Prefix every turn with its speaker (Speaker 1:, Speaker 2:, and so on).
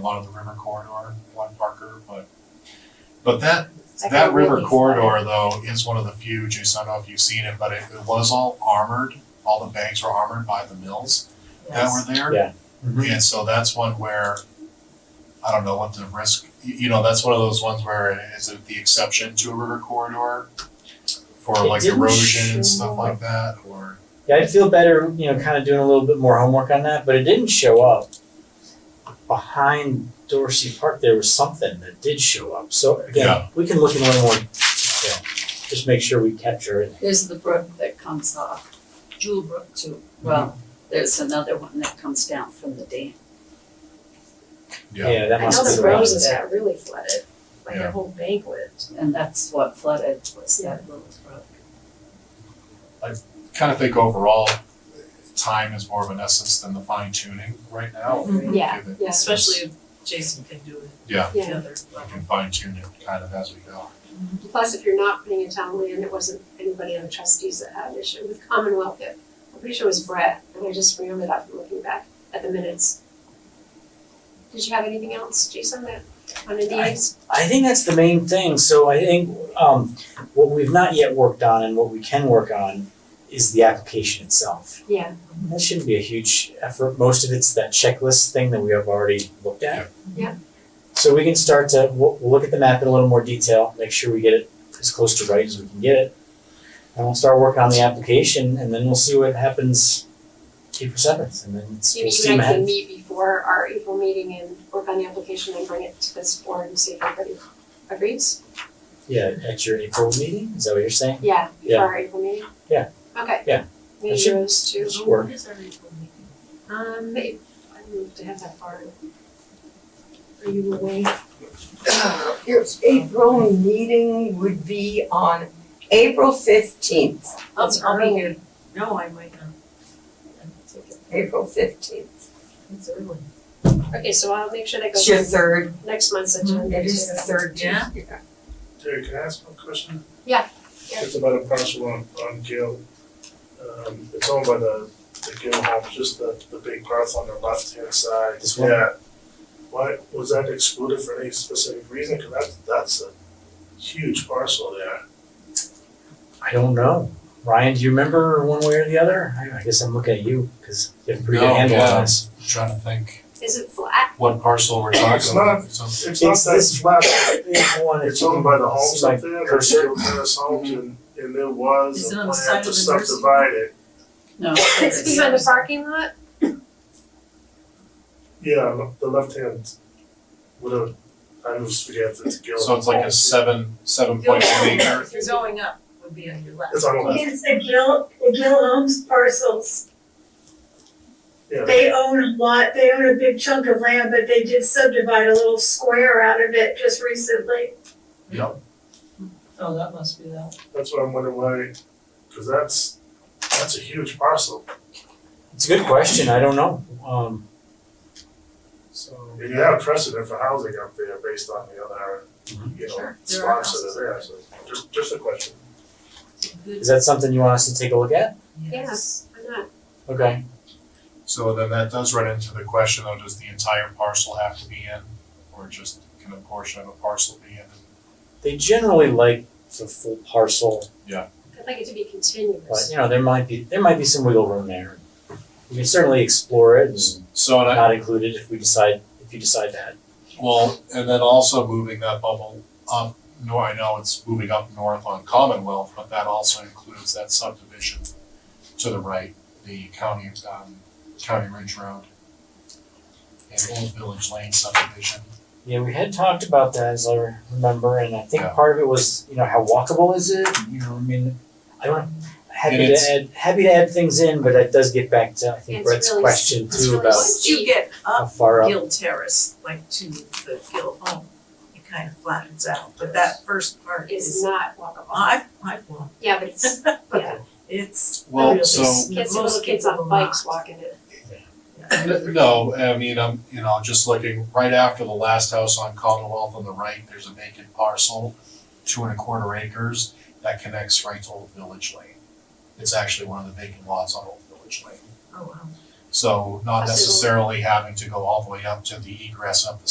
Speaker 1: lot of the river corridor, one Parker, but, but that,
Speaker 2: I
Speaker 1: that
Speaker 2: got
Speaker 1: river
Speaker 2: really
Speaker 1: corridor though is one of the few, Jason, I don't know if you've seen it, but it, it was all armored. All the banks were armored by the mills that
Speaker 2: Yes.
Speaker 1: were there.
Speaker 3: Yeah.
Speaker 1: And so that's one where, I don't know what the risk, you, you know, that's one of those ones where is it the exception to a river corridor? For
Speaker 3: It
Speaker 1: like
Speaker 3: didn't
Speaker 1: erosion and stuff
Speaker 2: show-
Speaker 1: like that, or,
Speaker 3: Yeah, I'd feel better, you know, kind of doing a little bit more homework on that, but it didn't show up. Behind Dorsey Park, there was something that did show up. So again,
Speaker 1: Yeah.
Speaker 3: we can look in a little more detail. Just make sure we capture it.
Speaker 2: There's the brook that comes off, Jewel Brook too. Well,
Speaker 3: Mm-hmm.
Speaker 2: there's another one that comes down from the dam.
Speaker 1: Yeah.
Speaker 3: that
Speaker 4: I know
Speaker 3: must be
Speaker 4: the
Speaker 3: the one.
Speaker 4: roses got really flooded, like
Speaker 1: Yeah.
Speaker 4: their whole bank went.
Speaker 2: And that's what flooded was that little brook.
Speaker 1: kind of think overall, time is more of an essence than the fine tuning right now.
Speaker 4: Yeah,
Speaker 1: If it-
Speaker 4: yeah.
Speaker 5: Especially if Jason can do it.
Speaker 1: Yeah.
Speaker 4: Yeah.
Speaker 5: Together.
Speaker 1: We can fine tune it kind of as we go.
Speaker 4: Plus, if you're not putting it town land, it wasn't anybody on the trustees that had an issue with Commonwealth. It, I'm pretty sure it was Brett, and I just remembered that from looking back at the minutes. Did you have anything else, Jason, that on the deeds?
Speaker 3: I think that's the main thing. So I think um, what we've not yet worked on and what we can work on is the application itself.
Speaker 4: Yeah.
Speaker 3: That shouldn't be a huge effort. Most of it's that checklist thing that we have already looked at.
Speaker 4: Yeah.
Speaker 3: So we can start to, we'll, we'll look at the map in a little more detail, make sure we get it as close to right as we can get it. And we'll start working on the application and then we'll see what happens April seventh and then it's, we'll
Speaker 4: Maybe
Speaker 3: see
Speaker 4: you and
Speaker 3: what
Speaker 4: I can
Speaker 3: happens.
Speaker 4: meet before our April meeting and work on the application and bring it to this board and see if everybody agrees?
Speaker 3: Yeah, at your April meeting, is that what you're saying?
Speaker 4: Yeah,
Speaker 3: Yeah.
Speaker 4: before our April meeting?
Speaker 3: Yeah.
Speaker 4: Okay.
Speaker 3: Yeah. That
Speaker 4: Maybe
Speaker 3: should-
Speaker 4: those two.
Speaker 3: Should work.
Speaker 5: When is our April meeting?
Speaker 4: Um, I moved to have that far. Are you away?
Speaker 6: Your April meeting would be on April fifteenth,
Speaker 5: I'll,
Speaker 4: It's
Speaker 5: I'll be
Speaker 4: early.
Speaker 5: here. No, I might not.
Speaker 6: April fifteenth.
Speaker 5: It's early.
Speaker 4: Okay, so I'll make sure that
Speaker 6: It's your
Speaker 4: goes
Speaker 6: third,
Speaker 4: on next month's
Speaker 6: Mm-hmm. it
Speaker 4: agenda.
Speaker 6: is the
Speaker 4: too.
Speaker 6: third
Speaker 5: Yeah.
Speaker 6: Tuesday.
Speaker 7: Terry, can I ask one question?
Speaker 4: Yeah.
Speaker 7: It's about a parcel on, on Gill. Um, it's owned by the, the Gill home, just the, the big parcel on the left-hand side.
Speaker 3: This one?
Speaker 7: Yeah. Why, was that excluded for any specific reason? Cause that's, that's a huge parcel there.
Speaker 3: I don't know. Ryan, do you remember one way or the other? I I guess I'm looking at you because you have a pretty
Speaker 1: No,
Speaker 3: good handle
Speaker 1: yeah.
Speaker 3: on this.
Speaker 1: Just Trying to think
Speaker 4: Is it flat?
Speaker 1: what parcel we're talking about.
Speaker 7: It's not-
Speaker 1: So-
Speaker 7: It's not
Speaker 3: It's this
Speaker 7: that flat,
Speaker 3: big one.
Speaker 7: it's owned by the
Speaker 3: It's
Speaker 7: homes
Speaker 3: like
Speaker 7: up there, the
Speaker 3: cursor.
Speaker 7: Gill Terrace homes, and, and there was
Speaker 5: Is it
Speaker 7: a
Speaker 5: on the
Speaker 7: plan
Speaker 5: side
Speaker 7: to
Speaker 5: of the nursing home?
Speaker 7: subdivide it.
Speaker 2: No.
Speaker 4: It's behind the parking lot?
Speaker 7: Yeah, le- the left-hand, whatever, I always forget if it's Gill.
Speaker 1: So it's like a seven, seven point one acre.
Speaker 5: If you're going up, would be on your left.
Speaker 7: It's on the left.
Speaker 8: It's the Gil, the Gil Homes parcels.
Speaker 7: Yeah.
Speaker 8: They own a lot, they own a big chunk of land, but they did subdivide a little square out of it just recently.
Speaker 1: Yep.
Speaker 5: Oh, that must be that.
Speaker 7: That's what I'm wondering why, because that's, that's a huge parcel.
Speaker 3: It's a good question. I don't know. Um,
Speaker 7: So you have precedent for housing up there based on the other, you know,
Speaker 5: Sure. There are
Speaker 7: spots that are there, so just, just a question.
Speaker 5: Good.
Speaker 3: is that something you want us to take a look at?
Speaker 4: Yes. Why not?
Speaker 3: Okay.
Speaker 1: So then that does run into the question though, does the entire parcel have to be in? Or just can a portion of a parcel be in?
Speaker 3: They generally like the full parcel,
Speaker 4: I'd like it to be
Speaker 3: but
Speaker 4: continuous.
Speaker 3: you know there might be there might be some wiggle room there. We can certainly explore it and
Speaker 1: So and I,
Speaker 3: not include it if we decide if you decide that.
Speaker 1: Well, and then also moving that bubble up, no, I know it's moving up north on Commonwealth, but that also includes that subdivision to the right, the county, um, County Ridge Road. And Old Village Lane subdivision.
Speaker 3: Yeah, we had talked about that as I remember, and I think
Speaker 1: Yeah.
Speaker 3: part of it was, you know, how walkable is it? You know, I mean, I don't happy
Speaker 1: And
Speaker 3: to
Speaker 1: it's-
Speaker 3: add happy to add things in, but that does get back to I think
Speaker 4: It's
Speaker 3: Brett's
Speaker 4: really-
Speaker 3: question
Speaker 4: it's
Speaker 3: too
Speaker 4: really
Speaker 3: about
Speaker 4: s-
Speaker 5: Once you get
Speaker 3: how
Speaker 4: Uh,
Speaker 5: up
Speaker 3: far up.
Speaker 5: Gill Terrace, like to the Gill home, it kind of flattens out, but that first part
Speaker 4: Is
Speaker 5: is,
Speaker 4: not walkable.
Speaker 5: I've, I've walked,
Speaker 4: Yeah, but it's, yeah,
Speaker 5: it's.
Speaker 1: Well,
Speaker 5: really
Speaker 1: so-
Speaker 5: s-
Speaker 4: kids,
Speaker 5: most
Speaker 4: little kids
Speaker 5: people
Speaker 4: on bikes
Speaker 5: not.
Speaker 4: walking it.
Speaker 1: N- No, I mean, I'm, you know, just looking right after the last house on Commonwealth on the right, there's a vacant parcel, two and a quarter acres, that connects right to Old Village Lane. It's actually one of the vacant lots on Old Village Lane.
Speaker 5: Oh, wow.
Speaker 1: So not
Speaker 4: Possible.
Speaker 1: necessarily having to go all the way up to the egress up the